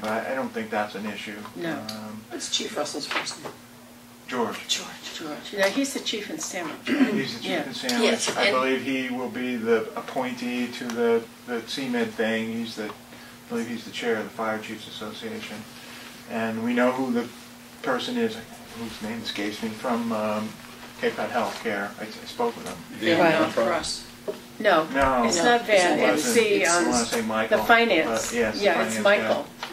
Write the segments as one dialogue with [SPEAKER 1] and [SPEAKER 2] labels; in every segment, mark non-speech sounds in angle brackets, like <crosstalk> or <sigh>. [SPEAKER 1] but I, I don't think that's an issue.
[SPEAKER 2] No.
[SPEAKER 1] Um,
[SPEAKER 3] What's Chief Russell's first name?
[SPEAKER 2] <clears throat>
[SPEAKER 1] George,
[SPEAKER 3] George.
[SPEAKER 2] George. Yeah, he's the chief in Sandwich.
[SPEAKER 1] he's the chief
[SPEAKER 2] Yeah.
[SPEAKER 1] in Sandwich.
[SPEAKER 3] Yes,
[SPEAKER 1] I
[SPEAKER 3] and-
[SPEAKER 1] believe he will be the appointee to the, the CMed thing. He's the, I believe he's the chair of the Fire Chiefs Association. And we know who the person is, whose name escapes me, from um, Cape Cod Healthcare. I I spoke with him.
[SPEAKER 2] Yeah,
[SPEAKER 3] Right.
[SPEAKER 2] no,
[SPEAKER 3] For us.
[SPEAKER 2] No,
[SPEAKER 1] No.
[SPEAKER 2] it's
[SPEAKER 1] No,
[SPEAKER 2] not Van,
[SPEAKER 3] it
[SPEAKER 2] it's
[SPEAKER 1] wasn't.
[SPEAKER 2] the,
[SPEAKER 1] I
[SPEAKER 2] um,
[SPEAKER 1] wanna say Michael,
[SPEAKER 2] the finance.
[SPEAKER 1] but yes,
[SPEAKER 2] Yeah, it's
[SPEAKER 1] finance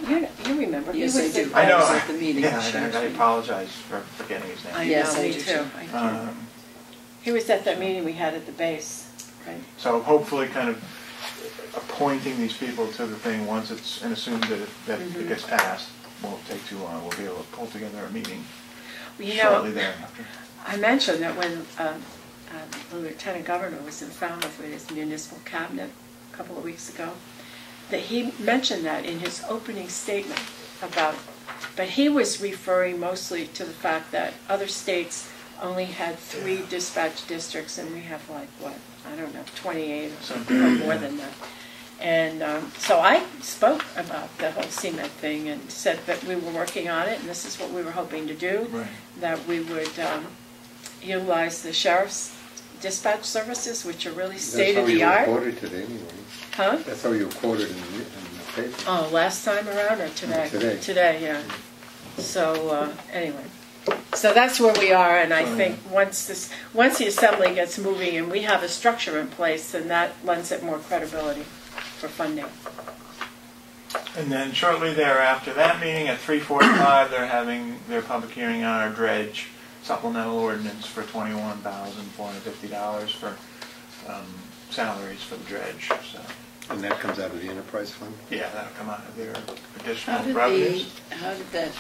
[SPEAKER 2] Michael. You, you remember. He
[SPEAKER 3] Yes,
[SPEAKER 2] was
[SPEAKER 3] I
[SPEAKER 2] the-
[SPEAKER 3] do.
[SPEAKER 1] I know.
[SPEAKER 3] was at the
[SPEAKER 1] <laughs>
[SPEAKER 3] meeting,
[SPEAKER 1] Yeah, and
[SPEAKER 3] she
[SPEAKER 1] I I
[SPEAKER 3] actually-
[SPEAKER 1] apologize for forgetting his
[SPEAKER 2] I
[SPEAKER 1] name.
[SPEAKER 3] Yes,
[SPEAKER 2] know,
[SPEAKER 3] I
[SPEAKER 2] me
[SPEAKER 3] do
[SPEAKER 2] too.
[SPEAKER 3] too.
[SPEAKER 2] I do.
[SPEAKER 1] Um,
[SPEAKER 2] He was at that meeting we had at the base, right?
[SPEAKER 1] So hopefully kind of appointing these people to the thing once it's, and assume that it, that
[SPEAKER 2] Mm-hmm.
[SPEAKER 1] it gets passed, won't take too long. We'll be able to pull together a meeting
[SPEAKER 2] Well, You
[SPEAKER 1] shortly
[SPEAKER 2] know,
[SPEAKER 1] thereafter.
[SPEAKER 2] I mentioned that when um, um, the lieutenant governor was in Falmouth with his municipal cabinet a couple of weeks ago, that he mentioned that in his opening statement about, but he was referring mostly to the fact that other states only had three dispatch districts and we have like, what, I don't know, 28 or something, or more than that. And um, so I spoke about the whole CMed thing and said that we were working on it and this is what we were hoping to do.
[SPEAKER 1] Right.
[SPEAKER 2] That we would um, utilize the sheriff's dispatch services, which are really state of the
[SPEAKER 4] That's how you were
[SPEAKER 2] art.
[SPEAKER 4] quoted today anyway.
[SPEAKER 2] Huh?
[SPEAKER 4] That's how you were quoted in the, in the
[SPEAKER 1] Uh,
[SPEAKER 4] paper.
[SPEAKER 2] Oh, last time around or today?
[SPEAKER 4] Today.
[SPEAKER 2] yeah. So, uh, anyway, so that's where we are, and I think once this, once the assembly gets moving and we have a structure in place, then that lends it more credibility for funding.
[SPEAKER 1] And then shortly thereafter, that meeting at three forty-five, they're having their public hearing on our dredge supplemental ordinance for twenty-one thousand four hundred fifty dollars for, um, salaries for the dredge, so.
[SPEAKER 4] And that comes out of the enterprise fund?
[SPEAKER 1] Yeah, that'll come out of their
[SPEAKER 3] How
[SPEAKER 1] additional
[SPEAKER 3] did the,
[SPEAKER 1] revenues.
[SPEAKER 3] how did that,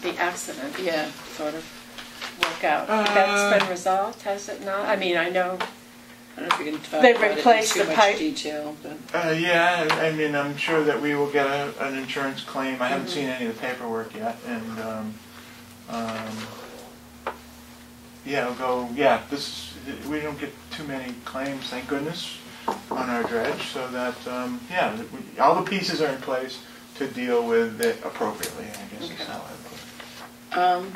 [SPEAKER 2] The accident,
[SPEAKER 3] yeah,
[SPEAKER 2] sort of, work out.
[SPEAKER 1] Uh,
[SPEAKER 2] That's been resolved, has it not? I mean, I know,
[SPEAKER 3] I don't know if we can talk
[SPEAKER 2] They
[SPEAKER 3] about it in
[SPEAKER 2] replaced
[SPEAKER 3] too
[SPEAKER 2] the
[SPEAKER 3] much
[SPEAKER 2] pipe.
[SPEAKER 3] detail, but.
[SPEAKER 1] Uh, yeah, I I mean, I'm sure that we will get a, an insurance claim. I haven't seen any of the paperwork yet, and, um, um, yeah, I'll go, yeah, this, we don't get too many claims, thank goodness, on our dredge, so that, um, yeah, that we- all the pieces are in place to deal with it appropriately, I guess is
[SPEAKER 3] Okay.
[SPEAKER 1] how I put it.
[SPEAKER 3] Um,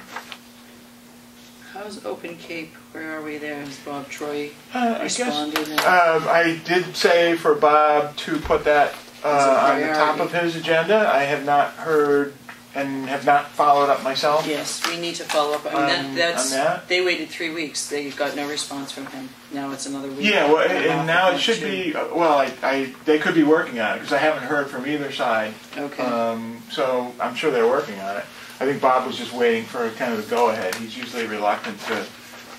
[SPEAKER 3] how's Open Cape? Where are we there? Has Bob Troy
[SPEAKER 1] Uh, I guess,
[SPEAKER 3] responded? and-
[SPEAKER 1] Um, I did say for Bob to put that uh, on the top of his agenda. I have not heard and have not followed up myself.
[SPEAKER 3] Yes, we need to follow up on
[SPEAKER 1] Um,
[SPEAKER 3] that. That's,
[SPEAKER 1] on that?
[SPEAKER 3] they waited three weeks. They got no response from him. Now it's another week.
[SPEAKER 1] Yeah, well,
[SPEAKER 3] I'm
[SPEAKER 1] and
[SPEAKER 3] off
[SPEAKER 1] and now
[SPEAKER 3] of
[SPEAKER 1] it
[SPEAKER 3] that
[SPEAKER 1] should
[SPEAKER 3] too.
[SPEAKER 1] be, uh, well, I, I, they could be working on it because I haven't heard from either side.
[SPEAKER 3] Okay.
[SPEAKER 1] Um, so I'm sure they're working on it. I think Bob was just waiting for kind of a go ahead. He's usually reluctant to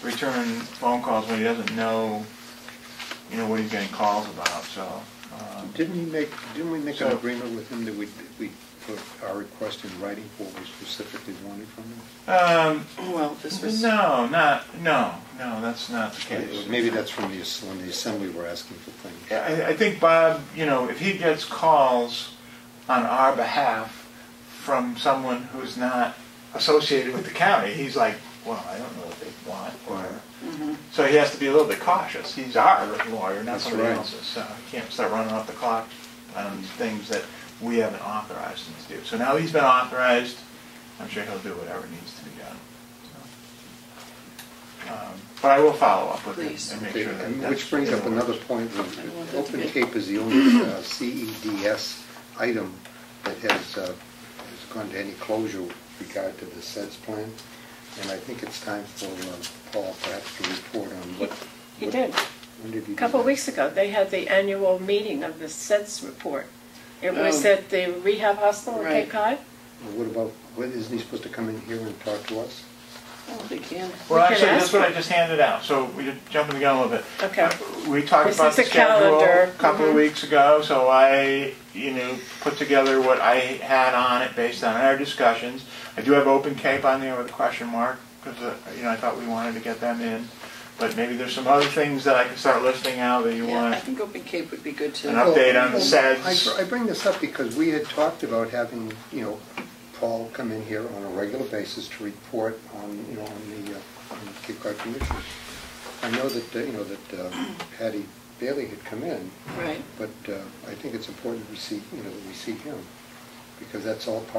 [SPEAKER 1] return phone calls when he doesn't know, you know, what he's getting calls about, so. um,
[SPEAKER 4] Didn't he make, didn't we make an
[SPEAKER 1] So-
[SPEAKER 4] agreement with him that we, we put our request in writing for what we specifically wanted from him?
[SPEAKER 1] Um,
[SPEAKER 3] Well, this was.
[SPEAKER 1] No, not, no, no, that's not the case.
[SPEAKER 4] Maybe that's from the, ass- when the assembly were asking for things.
[SPEAKER 1] I, I think Bob, you know, if he gets calls on our behalf from someone who's not associated with the county, he's like, well, I don't know what they want, or, so he has to be a little bit cautious. He's our lawyer, not
[SPEAKER 4] That's
[SPEAKER 1] somebody
[SPEAKER 4] right.
[SPEAKER 1] else's, so he can't start running off the clock on things that we haven't authorized him to do. So now he's been authorized, I'm sure he'll do whatever needs to be done. So, um, But I will follow up with him
[SPEAKER 3] Please.
[SPEAKER 1] and make
[SPEAKER 4] Okay,
[SPEAKER 1] sure that
[SPEAKER 4] and
[SPEAKER 1] that's
[SPEAKER 4] Which brings
[SPEAKER 1] in
[SPEAKER 4] up
[SPEAKER 1] order.
[SPEAKER 4] another point,
[SPEAKER 3] I want that to
[SPEAKER 4] Open
[SPEAKER 3] be-
[SPEAKER 4] Cape is the only uh, CEDS item that has, uh, has gone to any closure with regard to the SEDS plan, and I think it's time for uh, Paul perhaps to report on what.
[SPEAKER 2] he
[SPEAKER 4] what-
[SPEAKER 2] did.
[SPEAKER 4] When did he do
[SPEAKER 2] A couple of
[SPEAKER 4] that?
[SPEAKER 2] weeks ago, they had the annual meeting of the sense report. It was
[SPEAKER 3] Oh.
[SPEAKER 2] at the rehab hospital in Cape
[SPEAKER 3] Right.
[SPEAKER 2] Cod.
[SPEAKER 4] Well, What about, what, isn't he supposed to come in here and talk to us?
[SPEAKER 3] Oh, they can.
[SPEAKER 1] Well,
[SPEAKER 2] We can
[SPEAKER 1] actually,
[SPEAKER 2] ask
[SPEAKER 1] that's what I
[SPEAKER 2] him.
[SPEAKER 1] just handed out, so we did jump in the gun a little bit.
[SPEAKER 2] Okay.
[SPEAKER 1] Uh, We talked
[SPEAKER 2] This
[SPEAKER 1] about
[SPEAKER 2] is
[SPEAKER 1] the
[SPEAKER 2] a
[SPEAKER 1] schedule
[SPEAKER 2] calendar.
[SPEAKER 1] a couple of
[SPEAKER 2] Mhm.
[SPEAKER 1] weeks ago, so I, you know, put together what I had on it based on our discussions. I do have Open Cape on there with a question mark, because, you know, I thought we wanted to get them in. But maybe there's some other things that I can start listing out that you
[SPEAKER 3] Yeah, I
[SPEAKER 1] want.
[SPEAKER 3] think Open Cape would be good to.
[SPEAKER 1] An update on the
[SPEAKER 4] Well,
[SPEAKER 1] SEDS.
[SPEAKER 4] I I bring this up because we had talked about having, you know, Paul come in here on a regular basis to report on, you know, on the, uh, on the Cape Cod Commission. I know that, uh, you know, that uh, Patty Bailey had come in,
[SPEAKER 3] Right.
[SPEAKER 4] but uh, I think it's important we see, you know, that we see him, because that's all part